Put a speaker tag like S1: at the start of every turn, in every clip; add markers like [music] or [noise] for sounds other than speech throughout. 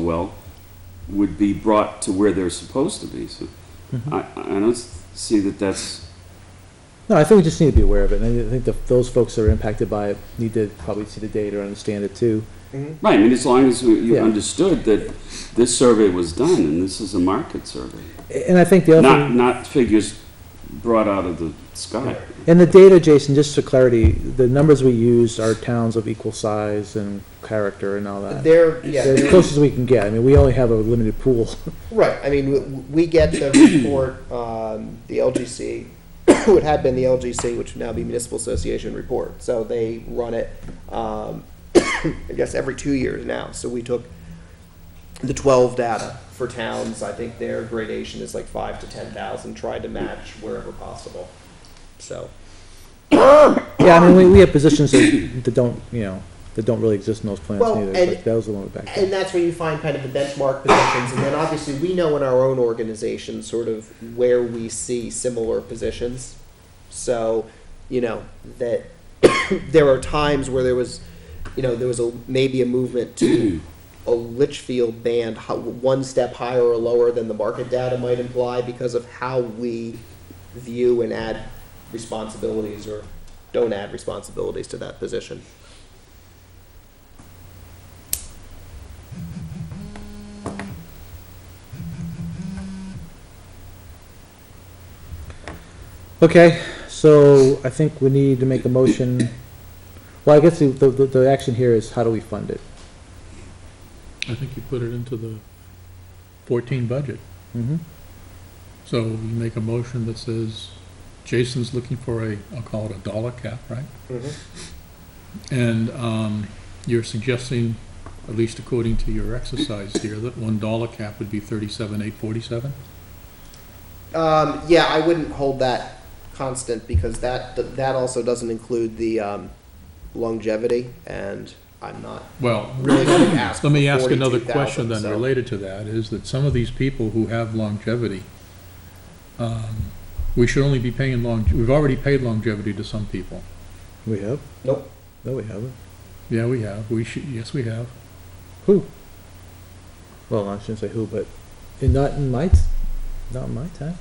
S1: well would be brought to where they're supposed to be. So
S2: Mm-hmm.
S1: I, I don't s- see that that's,
S3: No, I think we just need to be aware of it, and I think the, those folks that are impacted by it need to probably see the data or understand it too.
S1: right, I mean, as long as you
S3: Yeah.
S1: understood that this survey was done and this is a market survey.
S3: A- And I think the other
S1: Not,
S3: thing,
S1: not figures brought out of the sky.
S3: and the data, Jason, just for clarity, the numbers we used are towns of equal size and character and all that.
S4: They're, yeah,
S3: They're As
S4: they're-
S3: close as we can get, I mean, we only have a limited pool. [laughs]
S4: right, I mean, w- w- we get the report, um, the [coughs] LGC, it had been the LGC, which would now be Municipal Association Report, so they run it, um, [coughs] I guess every two years now, so we took the twelve data for towns, I think their gradation is like five to ten thousand, tried to match wherever possible, so.
S3: Yeah, I mean, we, we have positions that, that don't, you know, that don't really exist in those plans
S4: Well,
S3: neither,
S4: and-
S3: but that was the one we backed up.
S4: And that's where you find kind of the benchmark positions, and then obviously we know in our own organization sort of where we see similar positions. So, you know, that [coughs] there are times where there was, you know, there was a, maybe a movement to a Litchfield band ho- one step higher or lower than the market data might imply because of how we view and add responsibilities or don't add responsibilities to that position.
S3: Okay, so I think we need to make a motion, well, I guess the, the, the action here is how do we fund it?
S5: I think you put it into the fourteen budget.
S3: Mm-hmm.
S5: So you make a motion that says, Jason's looking for a, I'll call it a dollar cap, right? And, um, you're suggesting, at least according to your exercise here, that one dollar cap would be thirty-seven, eight forty-seven?
S4: Um, yeah, I wouldn't hold that constant because that that also doesn't include the um, longevity, and I'm not
S5: Well,
S4: really going to ask.
S5: let me
S4: for
S5: ask another
S4: 42,000,
S5: question then
S4: so-
S5: related to that, is that some of these people who have longevity, um, we should only be paying long, we've already paid longevity to some people.
S3: We have?
S4: Nope.
S3: No, we haven't.
S5: Yeah, we have, we should, yes, we have.
S3: Who? Well, I shouldn't say who, but in, not in my, t- not in my time.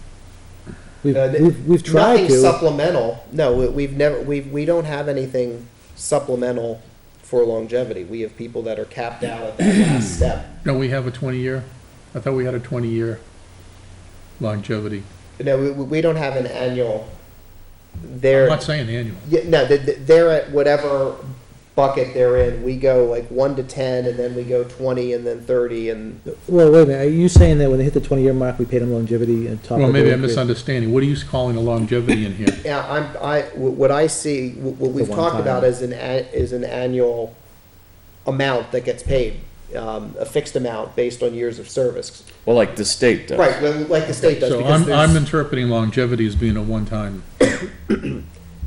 S3: We've,
S4: Uh, th-
S3: we've, we've tried
S4: Nothing
S3: to.
S4: supplemental. No, we, we've never we we don't have anything supplemental for longevity. We have people that are capped out at that last step.
S5: Don't we have a twenty-year? I thought we had a twenty-year longevity.
S4: No, we, we we don't have an annual.
S5: I'm
S4: There,
S5: not saying annual.
S4: Yeah, no, th- th- they're at whatever bucket they're in. We go like one to ten, and then we go twenty, and then thirty, and
S3: Well, wait a minute, are you saying that when they hit the twenty-year mark, we paid them longevity and top?
S5: Well,
S3: of
S5: maybe
S3: their
S5: I'm
S3: increase?
S5: misunderstanding. What are you calling a longevity in here?
S4: yeah, I'm I wh- what I see wh- what we've
S3: one
S4: talked
S3: time.
S4: about is an a- is an annual amount that gets paid, um, a fixed amount based on years of service.
S2: Well, like the state does.
S4: Right, well, like the state does.
S5: So
S4: because
S5: I'm,
S4: there's-
S5: I'm interpreting longevity as being
S4: [coughs]
S5: a one-time,
S4: It-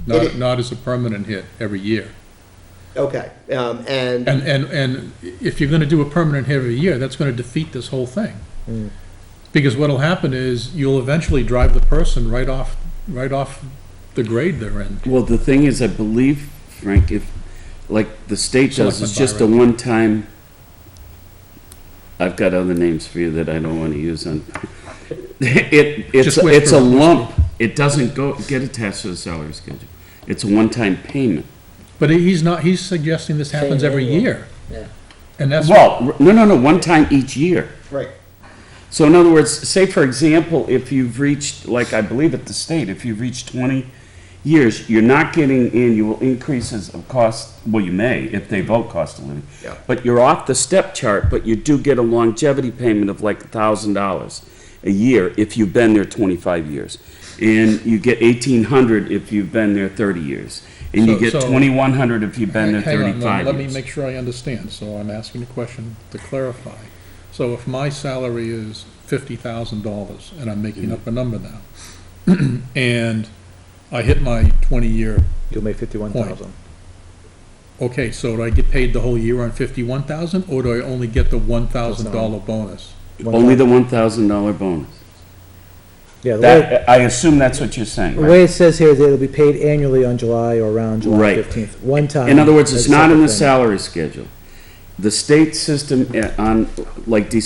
S5: not, not as a permanent hit every year.
S4: okay, um, and
S5: And, and, and if you're gonna do a permanent hit every year, that's gonna defeat this whole thing.
S4: Mm.
S5: Because what'll happen is you'll eventually drive the person right off, right off the grade they're in.
S1: Well, the thing is, I believe, Frank, if, like the state does, it's
S5: Selectman
S1: just a
S5: Byron.
S1: one-time, I've got other names for you that I don't want to use on, [laughs] it, it's,
S5: Just wait
S1: it's a
S5: for-
S1: lump. It doesn't go, get attached to the salary schedule. It's a one-time payment.
S5: But he's not, he's suggesting this happens every year.
S3: Yeah.
S5: And that's.
S1: Well, no, no, no, one time each year.
S4: right,
S1: So in other words, say for example, if you've reached, like I believe at the state, if you've reached twenty years, you're not getting annual increases of cost, well, you may, if they vote cost of living.
S4: Yeah.
S1: But you're off the step chart, but you do get a longevity payment of like a thousand dollars a year if you've been there twenty-five years. And you get eighteen hundred if you've been there thirty years. And you
S5: So-
S1: get
S5: so-
S1: twenty-one hundred if you've been there
S5: Hang on,
S1: thirty-five
S5: let-
S1: years.
S5: Let me make sure I understand, so I'm asking a question to clarify. So if my salary is fifty thousand dollars, and I'm making up a number now, [clears throat] and I hit my twenty-year,
S3: You'll make fifty-one thousand.
S5: okay, so do I get paid the whole year on fifty-one thousand, or do I only get the one thousand dollar bonus?
S1: Only the one thousand dollar bonus.
S3: Yeah, the way,
S1: That, I assume that's what you're saying,
S3: the
S1: right?
S3: way it says here is that it'll be paid annually on July or around July
S1: Right.
S3: fifteenth, one time.
S1: In other words, it's
S3: as a
S1: not in the
S3: separate
S1: salary schedule. the state system uh, eh, on, like December